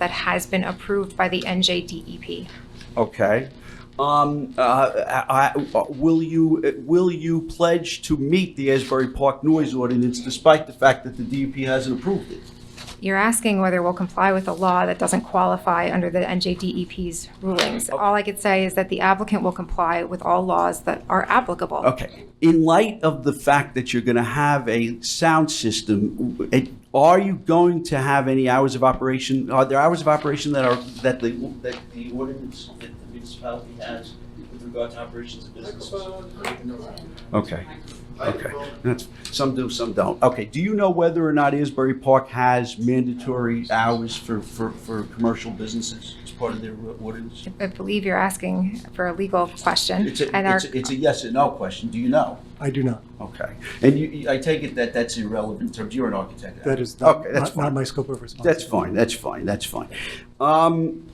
that has been approved by the NJDEP. Okay. Um, uh, I, I- will you, will you pledge to meet the Asbury Park noise ordinance despite the fact that the DEP hasn't approved it? You're asking whether we'll comply with a law that doesn't qualify under the NJDEP's E rulings. All I could say is that the applicant will comply with all laws that are applicable. Okay. In light of the fact that you're going to have a sound system, it- are you going to have any hours of operation? Are there hours of operation that are, that the, that the ordinance, that the municipality has with regard to operations of businesses? Okay, okay. That's- Some do, some don't. Okay, do you know whether or not Asbury Park has mandatory hours for, for, for commercial businesses as part of their ordinance? I believe you're asking for a legal question. It's a, and our- it's a- it's a yes or no question. Do you know? I do not. Okay. And you- you, I take it that that's irrelevant terms. You're an architect. That is not, Okay, that's not- not fine. my scope of responsibility. That's fine, that's fine, that's fine. Um,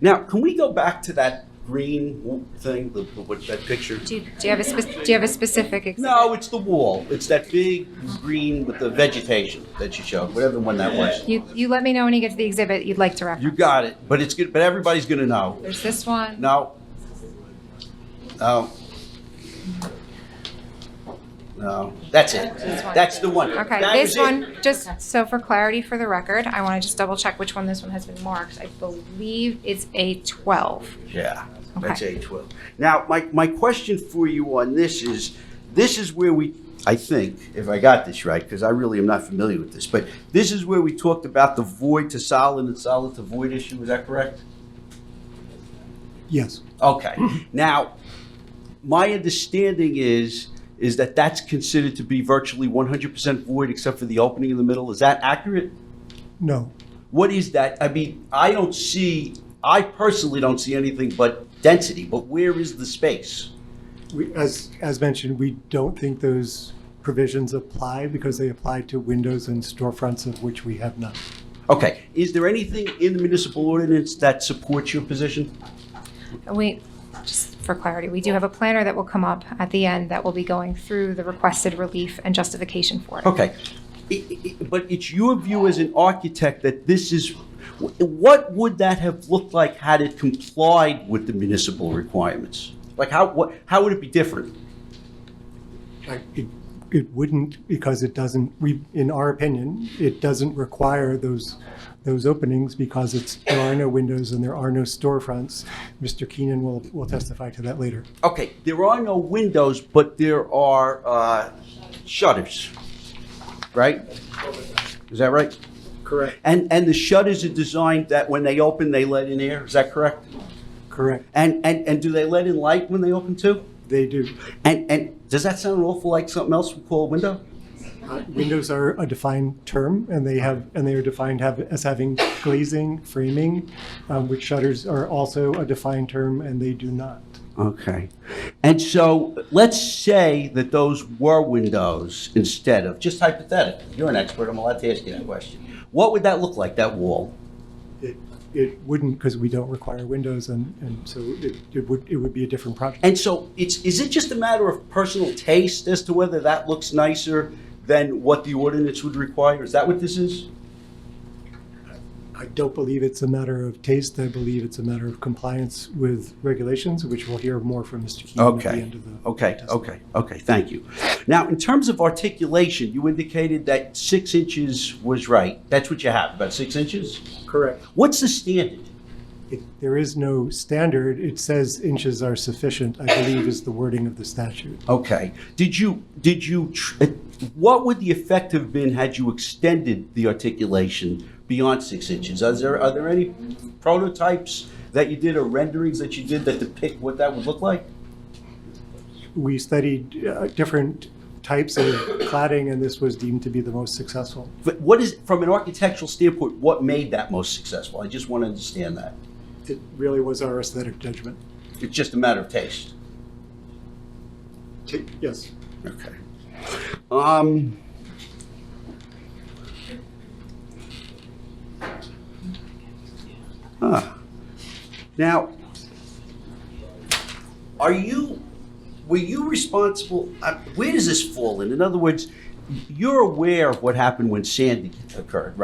now, can we go back to that green thing, the, the- what, that picture? Do you do you have a, spec- do you have a specific? example? No, it's the wall. It's that big green with the vegetation that you showed, whatever one that was. You, you let me know when you get to the exhibit you'd like to You reference. got it, but it's good, but everybody's gonna know. There's this one. No. No. No, that's it. That's the one. Okay, That this was it. one, just so for clarity for the record, I want to just double check which one this one has been marked. I believe it's A12. Yeah, that's Okay. A twelve. Now, my, my question for you on this is, this is where we, I think, if I got this right, because I really am not familiar with this, but this is where we talked about the void to solid and solid to void issue, is that correct? Yes, Okay, now, my understanding is, is that that's considered to be virtually one hundred percent void except for the opening in the middle, is that accurate? no, What is that? I mean, I don't see, I personally don't see anything but density, but where is the space? we, as, as mentioned, we don't think those provisions apply because they apply to windows and storefronts of which we have none. Okay, is there anything in the municipal ordinance that supports your position? We, just for clarity, we do have a planner that will come up at the end that will be going through the requested relief and justification for it. Okay, I- I- I- but it's your view as an architect that this is, wh- what would that have looked like had it complied with the municipal requirements? Like, how, what, how would it be different? I- It, it wouldn't because it doesn't, we, in our opinion, it doesn't require those, those openings because it's, there are no windows and there are no storefronts. Mr. Keenan will, will testify to that later. Okay, there are no windows, but there are uh, shutters, right? Is that right? Correct. And, and the shutters are designed that when they open, they let in air, is that correct? Correct, And, and, and do they let in light when they open too? they do. And, and does that sound awful like something else we call a window? Uh, Windows are a defined term, and they have, and they are defined have, as having glazing, framing, um, which shutters are also a defined term, and they do not. Okay. And so let's say that those were windows instead of, just hypothetically, you're an expert, I'm allowed to ask you that question. What would that look like, that wall? It, it wouldn't, because we don't require windows, and, and so it, it would, it would be a different project. And so it's, is it just a matter of personal taste as to whether that looks nicer than what the ordinance would require? Is that what this is? I don't believe it's a matter of taste, I believe it's a matter of compliance with regulations, which we'll hear more from Mr. Keenan at the Okay, end of the. okay, testimony. okay, okay, thank you. Now, in terms of articulation, you indicated that six inches was right. That's what you have, about six inches? Correct. What's the standard? It- There is no standard, it says inches are sufficient, I believe is the wording of the statute. Okay, did you, did you, tr- uh, what would the effect have been had you extended the articulation beyond six inches? Are there, are there any prototypes that you did or renderings that you did that depict what that would look like? we studied uh, different types of cladding, and this was deemed to be the most successful. But what is, from an architectural standpoint, what made that most successful? I just want to understand that. It really was our aesthetic judgment. It's just a matter of taste. Yes. Okay. Um. Huh. Now, are you, were you responsible, uh, where does this fall in? In other words, you're aware of what happened when Sandy occurred, right?